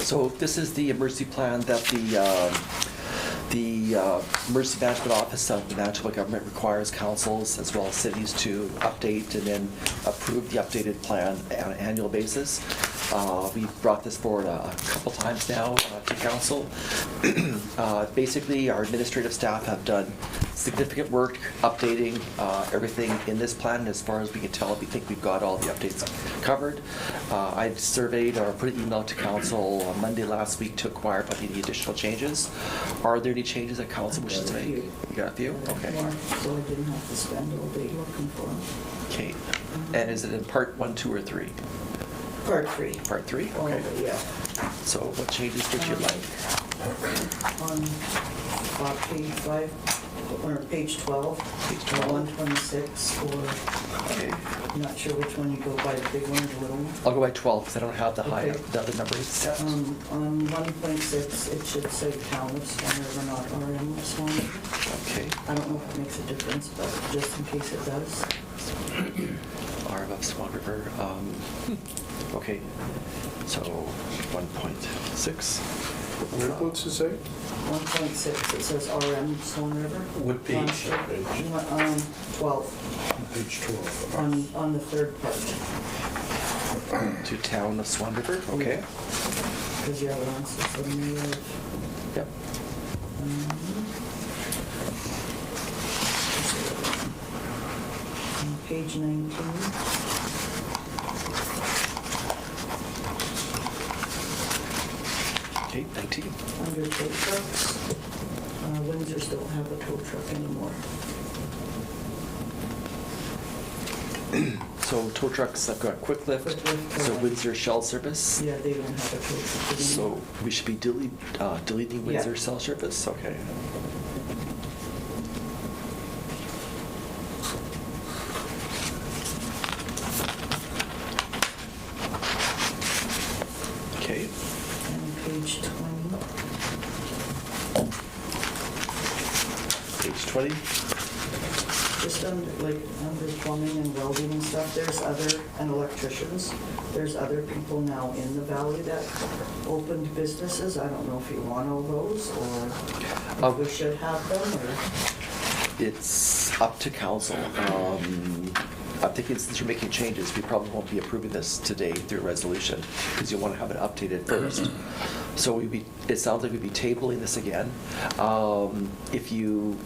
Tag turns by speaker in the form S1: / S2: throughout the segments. S1: So this is the emergency plan that the, um, the uh, emergency management office of the Manitoba government requires councils as well as cities to update and then approve the updated plan on an annual basis. Uh, We brought this forward a couple times now uh, to council. Uh, Basically, our administrative staff have done significant work updating uh, everything in this plan. As far as we can tell, we think we've got all the updates covered. Uh, I surveyed or put an email to council on Monday last week to inquire about any additional changes. Are there any changes that council wishes to make? You got a few? Okay.
S2: Yeah, So I didn't have to spend all day looking for them.
S1: Kate, and is it in part one, two, or three?
S2: Part three.
S1: Part three?
S2: All
S1: Okay.
S2: of it, yeah.
S1: So what changes would you like?
S2: On uh, page five, or page 12.
S1: Page 12.
S2: 126, or
S1: Okay.
S2: I'm not sure which one you go by, the big one or the little one.
S1: I'll go by 12 because I don't have the high,
S2: Okay.
S1: the other numbers.
S2: Um, On 1.6, it should say town of Swan River, not RM of Swan River.
S1: Okay.
S2: I don't know if it makes a difference, but just in case it does.
S1: Arv of Swan River. um, Okay, so 1.6.
S3: Whereabouts is that?
S2: 1.6, it says RM Swan River.
S1: What page?
S2: Not sure. Um, 12,
S3: Page 12.
S2: on, on the third part.
S1: To town of Swan River, okay.
S2: Because you have it on system mayor.
S1: Yep.
S2: Um, On Page 19.
S1: Okay, 19.
S2: Under tow trucks, uh, Windsors don't have a tow truck anymore.
S1: So tow trucks, I've got quick lift,
S2: Quick lift,
S1: so
S2: uh,
S1: Windsor Shell Service.
S2: Yeah, they don't have a tow truck anymore.
S1: So we should be delete- uh, deleting
S2: Yeah.
S1: Windsor Shell Service, okay. Okay.
S2: On page 20,
S1: Page 20.
S2: just under, like, under plumbing and welding and stuff, there's other, and electricians, there's other people now in the valley that opened businesses. I don't know if you want all those, or
S1: Um,
S2: if we should have them, or,
S1: It's up to council. Um, I think it's- since you're making changes, we probably won't be approving this today through resolution because you want to have it updated first. So we'd be, it sounds like we'd be tabling this again. Um, If you,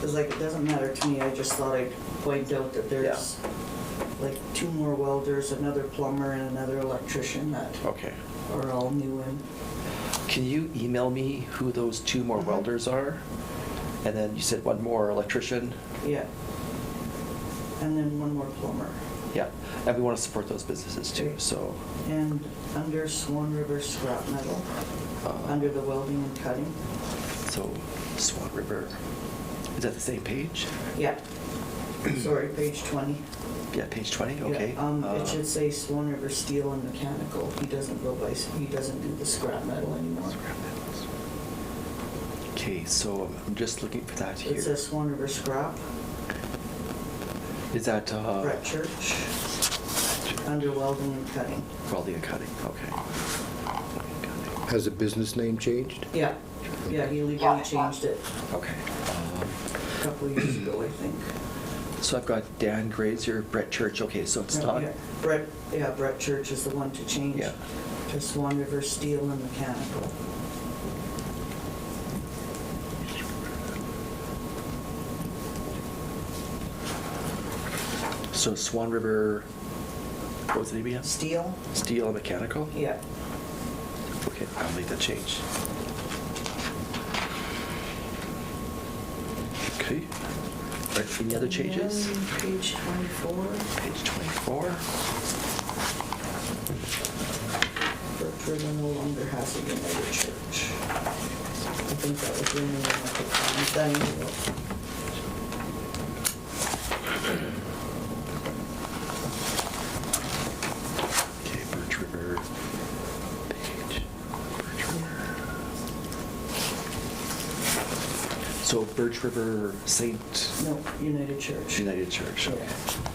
S2: because like, it doesn't matter to me, I just thought I'd point out that there's, like, two more welders, another plumber, and another electrician that
S1: okay,
S2: are all new and,
S1: can you email me who those two more
S2: Mhm.
S1: welders are? And then you said one more electrician?
S2: yeah. And then one more plumber.
S1: Yeah, and we want to support those businesses too, so.
S2: And under Swan River scrap metal,
S1: uh,
S2: under the welding and cutting,
S1: So Swan River, is that the same page?
S2: yeah. Sorry, page 20.
S1: Yeah, page 20,
S2: Yeah,
S1: okay.
S2: Um,
S1: Uh,
S2: it should say Swan River Steel and Mechanical. He doesn't go by, he doesn't do the scrap metal anymore.
S1: Okay, so I'm just looking for that
S2: It
S1: here.
S2: says Swan River Scrap,
S1: Is that, uh,
S2: Brett Church, under welding and cutting.
S1: Raleigh and Cutting, okay.
S3: Has the business name changed?
S2: Yeah, yeah, he legally changed it
S1: Okay. Um,
S2: a couple of years ago, I think.
S1: So I've got Dan Grazer, Brett Church, okay, so it's
S2: No,
S1: not,
S2: yeah, Brett, yeah, Brett Church is the one to change
S1: Yeah.
S2: to Swan River Steel and Mechanical.
S1: so Swan River, what was the name again?
S2: Steel?
S1: Steel and Mechanical?
S2: Yeah.
S1: Okay, I'll make that change. Okay. All right, any other changes?
S2: And then Page 24
S1: Page 24.
S2: Berkshire no longer has a United Church. I think that was the only one that could find that.
S1: Okay, Birch River page. Birch River. So Birch River Saint
S2: No, United Church.
S1: United Church.
S2: Yeah.
S1: okay.